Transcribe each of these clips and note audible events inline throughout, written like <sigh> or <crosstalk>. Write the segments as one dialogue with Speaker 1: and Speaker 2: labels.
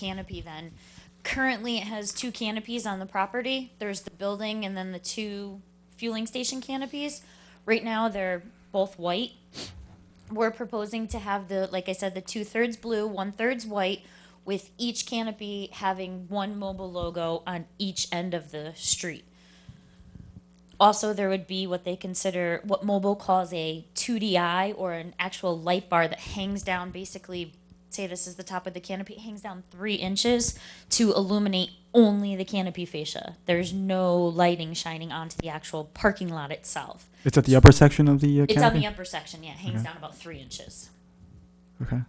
Speaker 1: canopy then. Currently, it has two canopies on the property. There's the building and then the two fueling station canopies. Right now, they're both white. We're proposing to have the, like I said, the two thirds blue, one thirds white, with each canopy having one mobile logo on each end of the street. Also, there would be what they consider what mobile calls a 2DI or an actual light bar that hangs down basically. Say this is the top of the canopy, it hangs down three inches to illuminate only the canopy fascia. There's no lighting shining onto the actual parking lot itself.
Speaker 2: It's at the upper section of the uh,
Speaker 1: It's on
Speaker 2: canopy? Mm-hmm.
Speaker 1: the upper section, yeah, it hangs
Speaker 2: Okay.
Speaker 1: down about three inches.
Speaker 2: Okay.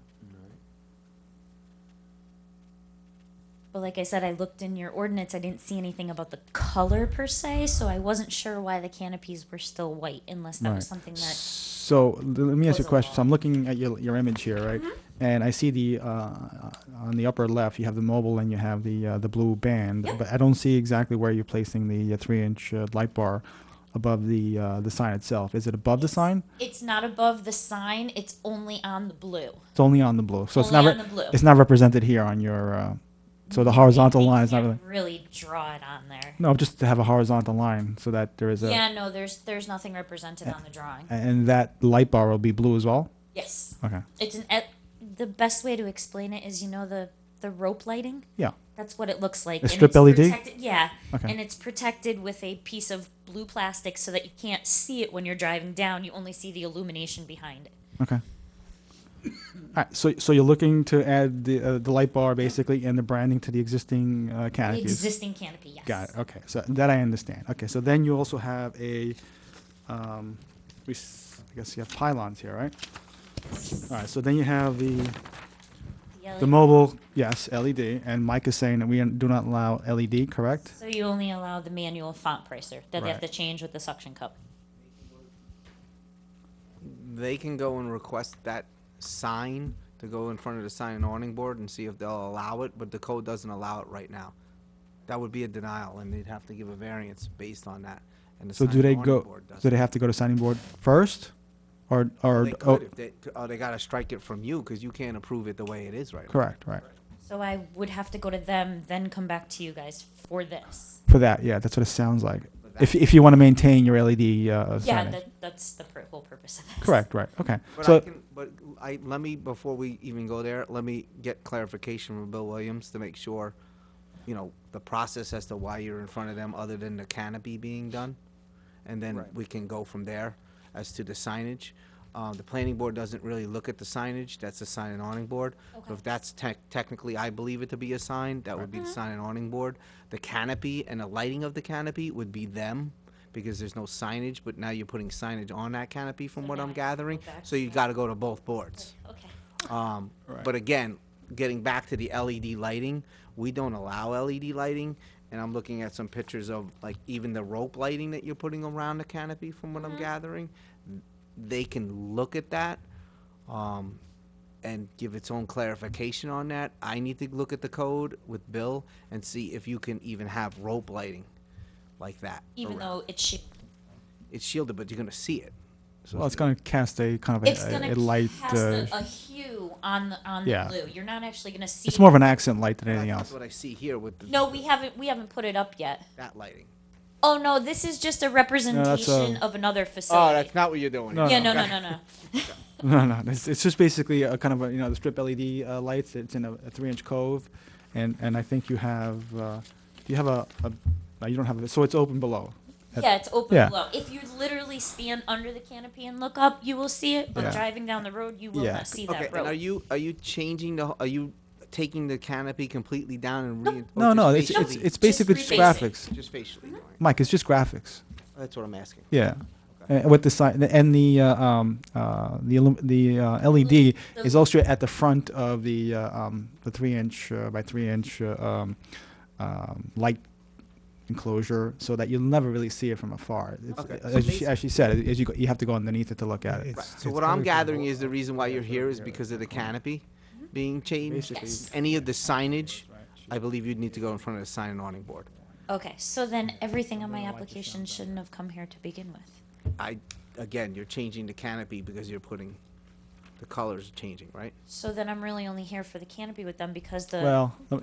Speaker 1: But like I said, I looked in your ordinance, I didn't see anything about the color per se, so I wasn't sure why the canopies were still white unless that was
Speaker 2: Right.
Speaker 1: something that,
Speaker 2: So l- let me ask you
Speaker 1: Was
Speaker 2: a
Speaker 1: a
Speaker 2: question. So
Speaker 1: lot.
Speaker 2: I'm looking at your, your image here, right?
Speaker 1: Mm-hmm.
Speaker 2: And I see the, uh, on the upper left, you have the mobile and you have the, uh, the blue band.
Speaker 1: Yep.
Speaker 2: But I don't see exactly where you're placing the uh, three-inch uh, light bar above the, uh, the sign itself. Is it above the sign?
Speaker 1: it's not above the sign, it's only on the blue.
Speaker 2: It's only on the blue. So it's not,
Speaker 1: Only
Speaker 2: re-
Speaker 1: on the blue. Mm-hmm.
Speaker 2: it's not represented here on your, uh, so the horizontal
Speaker 1: They
Speaker 2: line is not really,
Speaker 1: can't Really draw it on there.
Speaker 2: no, just to have a horizontal line so that there is a,
Speaker 1: Yeah, no, there's, there's nothing represented on the drawing.
Speaker 2: and that light bar will be blue as well?
Speaker 1: Yes,
Speaker 2: Okay.
Speaker 1: it's an, et- the best way to explain it is, you know, the, the rope lighting?
Speaker 2: Yeah.
Speaker 1: That's what it looks like.
Speaker 2: A
Speaker 1: and
Speaker 2: strip
Speaker 1: it's
Speaker 2: LED?
Speaker 1: protected- Yeah.
Speaker 2: Okay.
Speaker 1: And it's protected with a piece of blue plastic so that you can't see it when you're driving down. You only see the illumination behind it.
Speaker 2: Okay. <coughs> Alright, so, so you're looking to add the, uh, the light bar basically and the branding to the existing, uh,
Speaker 1: The
Speaker 2: canopies?
Speaker 1: existing canopy, yes.
Speaker 2: Got it, okay, so that I understand. Okay, so then you also have a, um, we, s- I guess you have pylons here, right? Alright, so then you have the, the
Speaker 1: LED.
Speaker 2: mobile, yes, LED, and Mike is saying that we do not allow LED, correct?
Speaker 1: So you only allow the manual font pricer that they have to
Speaker 2: Right.
Speaker 1: change with the suction cup.
Speaker 3: They can go and request that sign to go in front of the sign and awning board and see if they'll allow it, but the code doesn't allow it right now. That would be a denial, and they'd have to give a variance based on that. And the
Speaker 2: So
Speaker 3: sign
Speaker 2: do
Speaker 3: and
Speaker 2: they
Speaker 3: awning
Speaker 2: go,
Speaker 3: board
Speaker 2: do
Speaker 3: doesn't.
Speaker 2: they have to go to signing board first? Or, or,
Speaker 3: They
Speaker 2: oh,
Speaker 3: could if they, oh, they gotta strike it from you, because you can't approve it the way it is right now.
Speaker 2: correct, right.
Speaker 1: So I would have to go to them, then come back to you guys for this.
Speaker 2: For that, yeah, that's what it sounds like. If, if you want to maintain your LED uh,
Speaker 1: Yeah,
Speaker 2: signage.
Speaker 1: that, that's the pr- whole purpose of this.
Speaker 2: Correct, right, okay.
Speaker 3: But I
Speaker 2: So,
Speaker 3: can, but I, let me, before we even go there, let me get clarification from Bill Williams to make sure, you know, the process as to why you're in front of them, other than the canopy being done. And then we can go from there as to the signage. Uh, the planning board doesn't really look at the signage, that's the sign and awning board. So
Speaker 1: Okay.
Speaker 3: If that's tech, technically, I believe it to be a sign, that would be the sign and awning board. The canopy and the lighting of the canopy would be them, because there's no signage, but now you're putting signage on that canopy from what
Speaker 1: now I
Speaker 3: I'm
Speaker 1: have to go
Speaker 3: gathering,
Speaker 1: back
Speaker 3: so you gotta go to both boards.
Speaker 1: Okay.
Speaker 3: Um, but again, getting back to the LED lighting, we don't allow LED lighting, and I'm looking at some pictures of like even the rope lighting that you're putting around the canopy from
Speaker 1: Mm-hmm.
Speaker 3: what I'm gathering. They can look at that, um, and give its own clarification on that. I need to look at the code with Bill and see if you can even have rope lighting like that.
Speaker 1: Even
Speaker 3: around.
Speaker 1: though it's, shi-
Speaker 3: It's shielded, but you're gonna see it. So
Speaker 2: well, it's going to cast a kind of
Speaker 1: it's
Speaker 2: a- a,
Speaker 1: gonna
Speaker 2: a light,
Speaker 1: cast
Speaker 2: uh,
Speaker 1: a, E a hue on the, on the
Speaker 2: yeah.
Speaker 1: blue. You're not actually gonna see.
Speaker 2: it's more of an accent light than anything
Speaker 3: That's
Speaker 2: else.
Speaker 3: what I see here with the-
Speaker 1: No, we haven't, we haven't put it up yet.
Speaker 3: that lighting.
Speaker 1: Oh no, this is just a
Speaker 2: uh,
Speaker 1: representation of another facility.
Speaker 3: Oh, that's not what you're doing.
Speaker 2: No,
Speaker 1: yeah, no, no, no,
Speaker 2: <laughs>
Speaker 1: no.
Speaker 2: No, no, it's, it's just basically a kind of a, you know, the strip LED uh, lights, it's in a a three-inch cove, and, and I think you have, uh, do you have a, a- no, you don't have, a so it's open below. At-
Speaker 1: Yeah, it's open
Speaker 2: Yeah.
Speaker 1: below. If you literally stand under the canopy and look up, you will see it. But
Speaker 2: Yeah.
Speaker 1: driving down the road, you will
Speaker 2: Yeah.
Speaker 1: not see
Speaker 3: Okay,
Speaker 1: that
Speaker 3: and are
Speaker 1: road.
Speaker 3: you, are you changing the, are you taking the canopy completely down and? rein- or
Speaker 2: No,
Speaker 3: just
Speaker 2: no, it's,
Speaker 3: facially?
Speaker 2: it's, it's
Speaker 1: Just
Speaker 2: basically just
Speaker 1: reface it.
Speaker 2: graphics.
Speaker 3: Just facially doing it.
Speaker 2: Mike, it's just graphics.
Speaker 3: That's what I'm asking.
Speaker 2: Yeah. And with the sign and the uh, um, uh, the illum- the uh, LED
Speaker 1: The-
Speaker 2: is also at the front of the uh, um, the three inch uh, by three inch uh, um, um, light enclosure, so that you'll never really see it from afar. It's,
Speaker 3: Okay. So
Speaker 2: As, she, as she said, as you go, you have to go underneath it to look at it.
Speaker 3: Right, so what I'm gathering is the reason why you're here is because of the canopy being changed.
Speaker 2: Basically, Yes.
Speaker 3: Any of the signage, I believe you'd need to go in front of the sign and awning board.
Speaker 1: Okay, so then everything on my application shouldn't have come here to begin with.
Speaker 3: I, again, you're changing the canopy because you're putting, the colors are changing, right?
Speaker 1: So then I'm really only here for the canopy with them because the
Speaker 2: Well,